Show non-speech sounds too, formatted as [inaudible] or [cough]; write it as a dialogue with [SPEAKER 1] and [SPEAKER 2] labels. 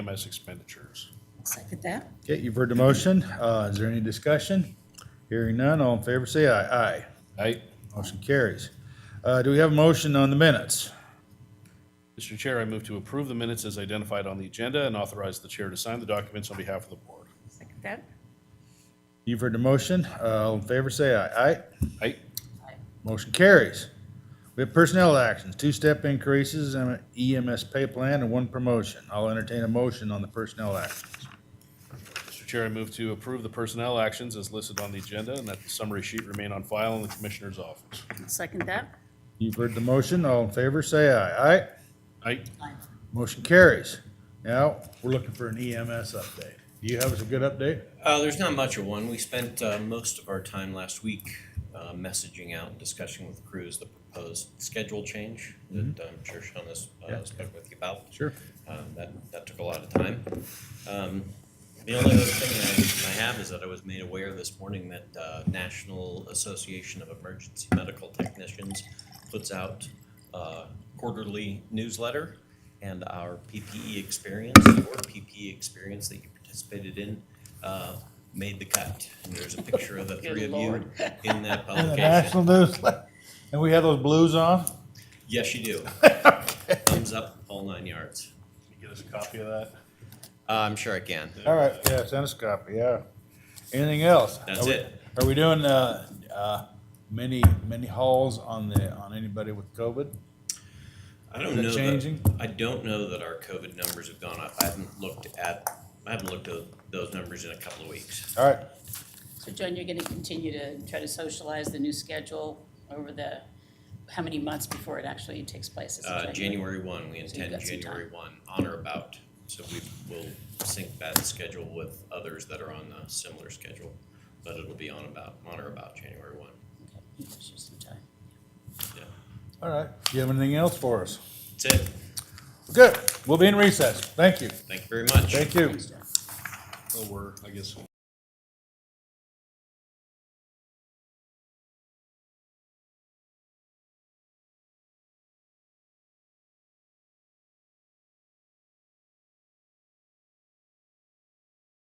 [SPEAKER 1] EMS expenditures.
[SPEAKER 2] Second that.
[SPEAKER 3] Okay, you've heard the motion. Uh, is there any discussion? Hearing none, all in favor say aye. Aye.
[SPEAKER 1] Aye.
[SPEAKER 3] Motion carries. Uh, do we have a motion on the minutes?
[SPEAKER 1] Mr. Chair, I move to approve the minutes as identified on the agenda and authorize the chair to sign the documents on behalf of the board.
[SPEAKER 2] Second that.
[SPEAKER 3] You've heard the motion. Uh, all in favor say aye. Aye.
[SPEAKER 1] Aye.
[SPEAKER 3] Motion carries. We have personnel actions, two-step increases and an EMS pay plan and one promotion. I'll entertain a motion on the personnel actions.
[SPEAKER 1] Mr. Chair, I move to approve the personnel actions as listed on the agenda and that the summary sheet remain on file in the Commissioner's office.
[SPEAKER 2] Second that.
[SPEAKER 3] You've heard the motion. All in favor say aye. Aye.
[SPEAKER 1] Aye.
[SPEAKER 3] Motion carries. Now, we're looking for an EMS update. Do you have us a good update?
[SPEAKER 4] Uh, there's not much of one. We spent, uh, most of our time last week, uh, messaging out and discussing with crews the proposed schedule change that I'm sure Sean has,
[SPEAKER 3] Yeah.
[SPEAKER 4] uh, spoke with you about.
[SPEAKER 3] Sure.
[SPEAKER 4] Um, that, that took a lot of time. Um, the only other thing I, I have is that I was made aware this morning that, uh, National Association of Emergency Medical Technicians puts out, uh, quarterly newsletter and our PPE experience, or PPE E experience that you participated in, uh, made the cut. And there's a picture of the three of you
[SPEAKER 2] Lord.
[SPEAKER 4] in
[SPEAKER 3] [laughs]
[SPEAKER 4] that
[SPEAKER 3] And the
[SPEAKER 4] publication.
[SPEAKER 3] national newsletter. [laughs] And we had those blues on? [laughs]
[SPEAKER 4] Yes, you do. Thumbs up, all nine yards.
[SPEAKER 1] Can you get us a copy of that?
[SPEAKER 4] Uh, I'm sure I can.
[SPEAKER 3] All right, yeah, send us a copy, yeah. Anything else?
[SPEAKER 4] That's
[SPEAKER 3] Are we-
[SPEAKER 4] it.
[SPEAKER 3] Are we doing, uh, uh, many, many hauls on the, on anybody with COVID?
[SPEAKER 4] I
[SPEAKER 3] Is
[SPEAKER 4] don't
[SPEAKER 3] it
[SPEAKER 4] know. that-
[SPEAKER 3] changing?
[SPEAKER 4] I don't know that our COVID numbers have gone up. I haven't looked at, I haven't looked at those numbers in a couple of weeks.
[SPEAKER 3] All right,
[SPEAKER 2] So John, you're going to continue to try to socialize the new schedule over the, how many months before it actually takes place? Is it
[SPEAKER 4] Uh, January one, we intend
[SPEAKER 2] got some
[SPEAKER 4] January one, on or about. So we will sync that schedule with others that are on a similar schedule. But it'll be on about, on or about January one,
[SPEAKER 2] Okay, gives you some time.
[SPEAKER 4] yeah.
[SPEAKER 3] all right. Do you have anything else for us?
[SPEAKER 4] That's it.
[SPEAKER 3] Good, we'll be in recess. Thank you.
[SPEAKER 4] Thank you very much.
[SPEAKER 3] Thank you.
[SPEAKER 2] Thanks, John.
[SPEAKER 1] Oh, we're, I guess,